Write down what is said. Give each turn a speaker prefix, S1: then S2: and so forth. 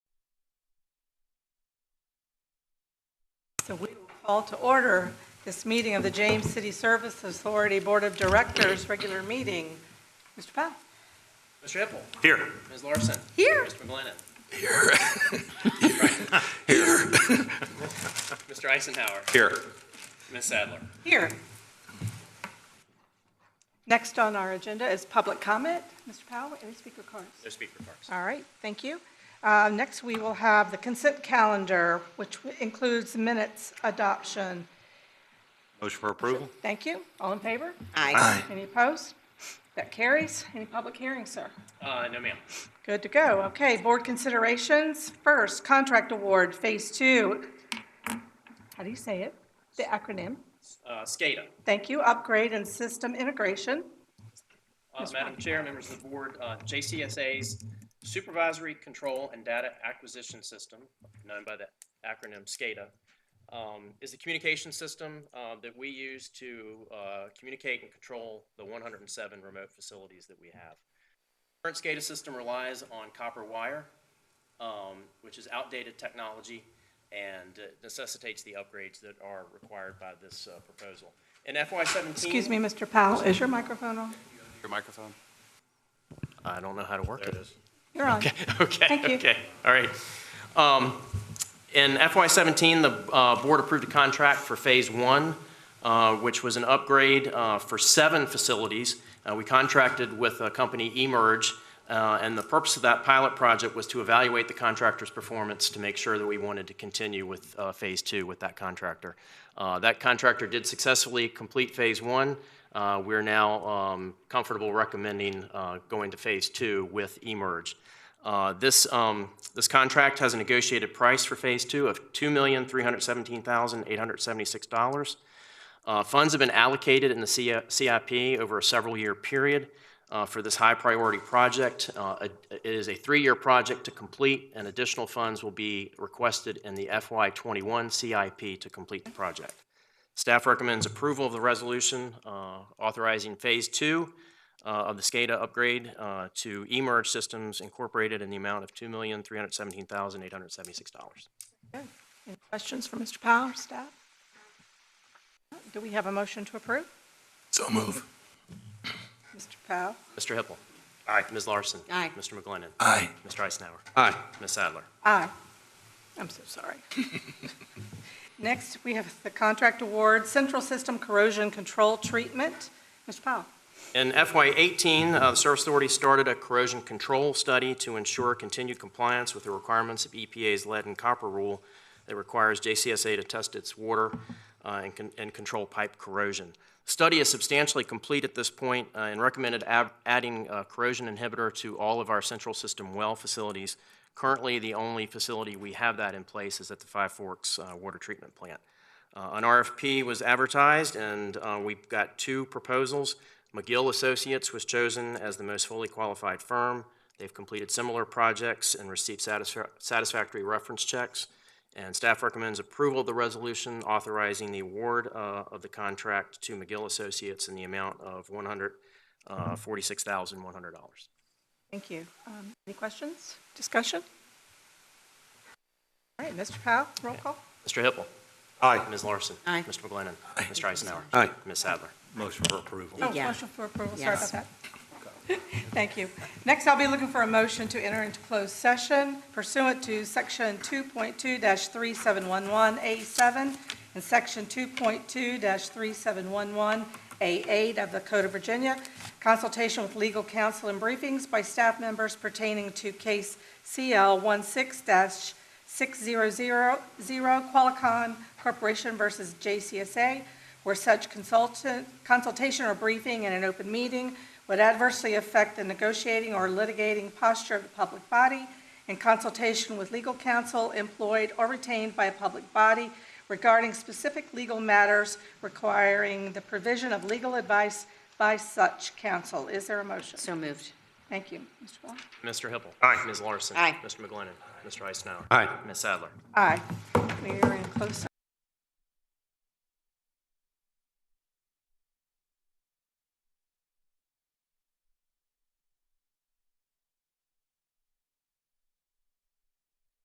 S1: So we will call to order this meeting of the James City Service Authority Board of Directors, regular meeting. Mr. Powell?
S2: Mr. Hippel.
S3: Here.
S2: Ms. Larson.
S1: Here.
S2: Mr. McGlinnan. Here. Mr. Eisenhower.
S3: Here.
S2: Ms. Sadler.
S1: Here. Next on our agenda is public comment. Mr. Powell, any speaker cards?
S2: No speaker cards.
S1: All right, thank you. Uh, Next, we will have the consent calendar, which includes minutes adoption.
S3: Motion for approval?
S1: Thank you. All in favor?
S4: Aye.
S1: Any opposed? That carries. Any public hearings, sir?
S2: Uh, no, ma'am.
S1: Good to go. Okay, board considerations. First, contract award, Phase Two. How do you say it? The acronym.
S2: Uh, SCADA.
S1: Thank you. Upgrade and system integration.
S2: Uh, Madam Chair, members of the board, uh, JCSA's Supervisory Control and Data Acquisition System, known by the acronym SCADA, um, is the communication system uh, that we use to uh, communicate and control the 107 remote facilities that we have. Current SCADA system relies on copper wire, um, which is outdated technology and uh, necessitates the upgrades that are required by this uh, proposal. In FY17.
S1: Excuse me, Mr. Powell, is your microphone on?
S3: Your microphone?
S2: I don't know how to work it.
S1: You're on.
S2: Okay.
S1: Thank you.
S2: Okay, all right. Um, In FY17, the uh, board approved a contract for Phase 1, uh, which was an upgrade uh, for seven facilities. Uh, We contracted with a company, Emerge, uh, and the purpose of that pilot project was to evaluate the contractor's performance to make sure that we wanted to continue with uh, Phase 2 with that contractor. Uh, That contractor did successfully complete Phase 1. Uh, We're now um, comfortable recommending uh, going to Phase 2 with Emerge. Uh, This, um, this contract has a negotiated price for Phase 2 of $2,317,876. Uh, Funds have been allocated in the C- CIP over a several-year period uh, for this high-priority project. Uh, It it is a three-year project to complete, and additional funds will be requested in the FY21 CIP to complete the project. Staff recommends approval of the resolution uh, authorizing Phase 2 uh, of the SCADA upgrade uh, to eMERGE Systems Incorporated in the amount of $2,317,876.
S1: Any questions for Mr. Powell, or staff? Do we have a motion to approve?
S4: So move.
S1: Mr. Powell?
S2: Mr. Hippel. Aye. Ms. Larson.
S4: Aye.
S2: Mr. McGlinnan.
S4: Aye.
S2: Mr. Eisenhower.
S3: Aye.
S2: Ms. Sadler.
S1: Aye. I'm so sorry. Next, we have the contract award, Central System Corrosion Control Treatment. Mr. Powell?
S2: In FY18, uh, the Service Authority started a corrosion control study to ensure continued compliance with the requirements of EPA's lead and copper rule that requires JCSA to test its water uh, and con- and control pipe corrosion. Study is substantially complete at this point uh, and recommended ab- adding a corrosion inhibitor to all of our central system well facilities. Currently, the only facility we have that in place is at the Five Forks uh, Water Treatment Plant. Uh, An RFP was advertised, and uh, we've got two proposals. McGill Associates was chosen as the most fully qualified firm. They've completed similar projects and received satisfa- satisfactory reference checks. And staff recommends approval of the resolution authorizing the award uh, of the contract to McGill Associates in the amount of uh, $146,100.
S1: Thank you. Um, Any questions, discussion? All right, Mr. Powell, roll call.
S2: Mr. Hippel.
S3: Aye.
S2: Ms. Larson.
S4: Aye.
S2: Mr. McGlinnan. Mr. Eisenhower.
S3: Aye.
S2: Ms. Sadler.
S3: Motion for approval.
S1: Oh,
S4: Yeah.
S1: motion for approval, sorry about
S4: Yes.
S1: that. Thank you. Next, I'll be looking for a motion to enter into closed session pursuant to Section 2.2-3711A7 and Section 2.2-3711A8 of the Code of Virginia, consultation with legal counsel and briefings by staff members pertaining to case CL 16-600 Qualicon Corporation versus JCSA, where such consultant, consultation or briefing in an open meeting would adversely affect the negotiating or litigating posture of the public body in consultation with legal counsel employed or retained by a public body regarding specific legal matters requiring the provision of legal advice by such counsel. Is there a motion?
S4: So moved.
S1: Thank you. Mr. Ball?
S2: Mr. Hippel. Aye. Ms. Larson.
S4: Aye.
S2: Mr. McGlinnan. Mr. Eisenhower.
S3: Aye.
S2: Ms. Sadler.
S1: Aye. We are in closed session.